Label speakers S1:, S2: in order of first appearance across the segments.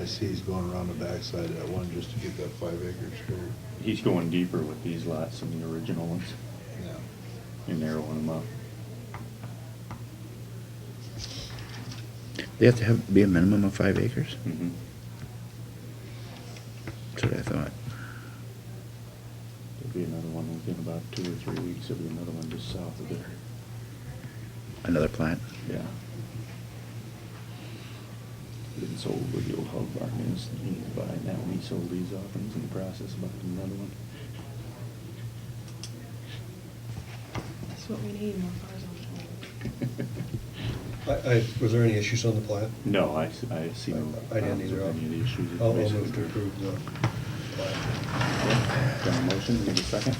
S1: I see he's going around the backside of that one just to get that five acre straight.
S2: He's going deeper with these lots than the original ones
S1: Yeah.
S2: and narrowing them up.
S3: They have to have, be a minimum of five acres?
S2: Mhm.
S3: That's what I thought.
S2: There'll be another one within about two or three weeks. There'll be another one just south of there.
S3: Another plat?
S2: Yeah. Been sold where the old hog barn is. He was buying that one. He sold these off and he's in the process of buying another one.
S4: That's what we need, more cars on the road.
S5: I, I, was there any issues on the plat?
S2: No, I, s- I see no.
S5: I didn't either.
S2: problems with Any of the issues.
S5: I'll I'll
S2: Basically,
S5: move to approve the plat.
S2: Got a motion, need a second?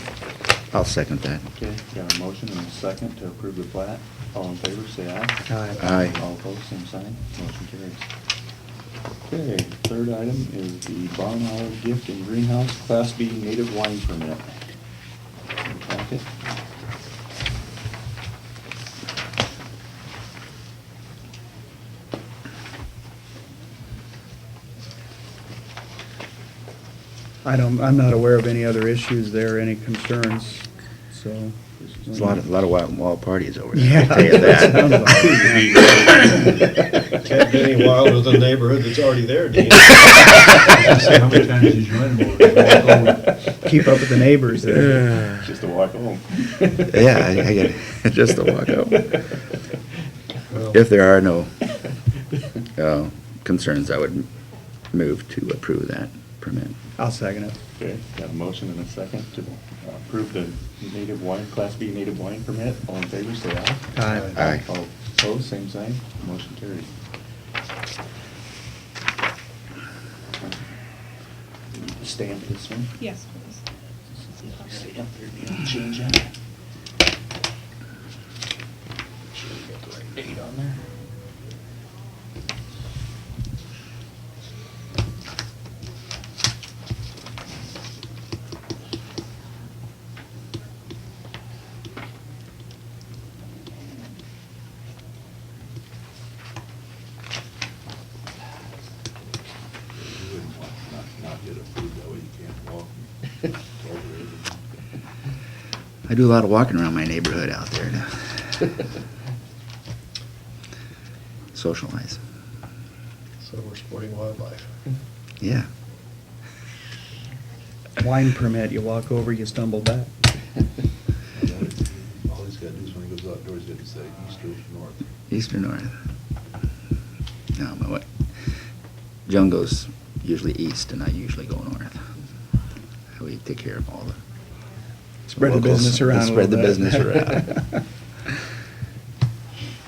S3: I'll second that.
S2: Okay, got a motion and a second to approve the plat. All in favor, say aye.
S3: Aye.
S2: All opposed, same sign, motion carries. Okay, third item is the Barn Hour Gift and Greenhouse Class B Native Wine Permit. Packet.
S6: I don't, I'm not aware of any other issues there, any concerns, so.
S3: There's a lot of, a lot of wild, wild parties over there.
S6: Yeah.
S3: I tell you that.
S5: Can't be any wild with a neighborhood that's already there, Dean.
S1: See how many times you join them over and walk over.
S6: Keep up with the neighbors there.
S2: Just a walk home.
S3: Yeah, I, I get it. Just a walk out.
S5: Well,
S3: If there are no, uh, concerns, I would move to approve that permit.
S6: I'll second it.
S2: Okay, got a motion and a second to approve the native wine, Class B native wine permit. All in favor, say aye.
S6: Aye.
S3: Aye.
S2: All opposed, same sign, motion carries. Stamp this one.
S4: Yes, please.
S2: Stamp there, you don't change that. Sure we got the right date on there.
S1: You wouldn't want to not, not get approved, that way you can't walk over there.
S3: I do a lot of walking around my neighborhood out there to socialize.
S5: So we're supporting wildlife.
S3: Yeah.
S6: Wine permit, you walk over, you stumble back.
S1: All he's gotta do is when he goes outdoors, he's gotta say east or north.
S3: East or north? No, my what? Joan goes usually east, and I usually go north. We take care of all the.
S6: Spread the
S3: locals
S6: business
S3: and
S6: around a
S3: Spread the
S6: little bit.
S3: business around.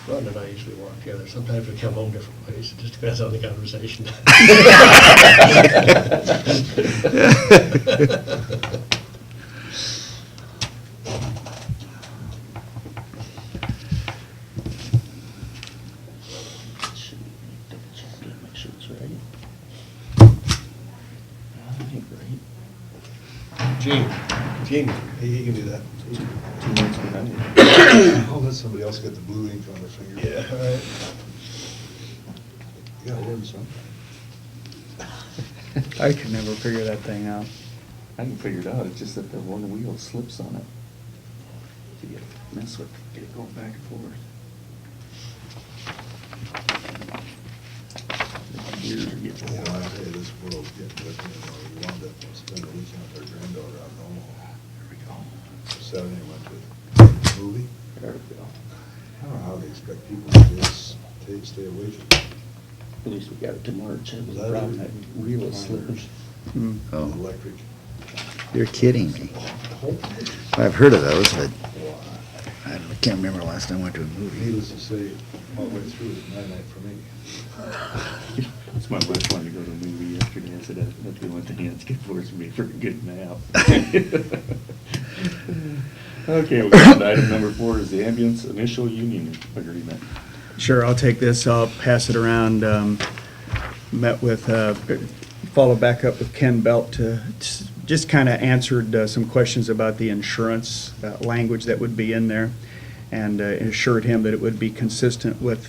S5: Rhonda and I usually walk together. Sometimes we come home different ways. It just depends on the conversation.
S2: Should we double check that, make sure it's right? I think right.
S5: Gene, Gene, he he can do that.
S2: Two months behind it.
S1: Oh, that's somebody else got the blue ink on their finger.
S5: Yeah, all right.
S1: You gotta learn something.
S6: I could never figure that thing out.
S2: I can figure it out, it's just that the one wheel slips on it. So you mess with, get it going back and forth. Weird, you
S1: You know,
S2: know.
S1: I tell you, this world's getting with me, and I wound up spending a weekend with our granddaughter out in Omaha.
S2: There we go.
S1: Saturday, went to a movie.
S2: There we go.
S1: I don't know how they expect people to just stay, stay away from it.
S2: At least we got it to March, that was
S1: Leather.
S2: the problem, that wheel is slippers.
S6: Hmm.
S3: Oh,
S1: Electric.
S3: you're kidding me.
S1: Whole thing.
S3: I've heard of those, but
S1: Wow.
S3: I don't- I can't remember the last time I went to a movie.
S1: Needless to say, all the way through it, night night for me.
S2: That's my wife wanted to go to a movie yesterday, I said, "That- that's the only thing that's good for is me for a good nap. Okay, we got item number four is the ambulance initial union agreement.
S6: Sure, I'll take this, I'll pass it around. Um, Met with, uh, followed back up with Ken Belt to, just kind of answered uh, some questions about the insurance uh, language that would be in there, and uh, assured him that it would be consistent with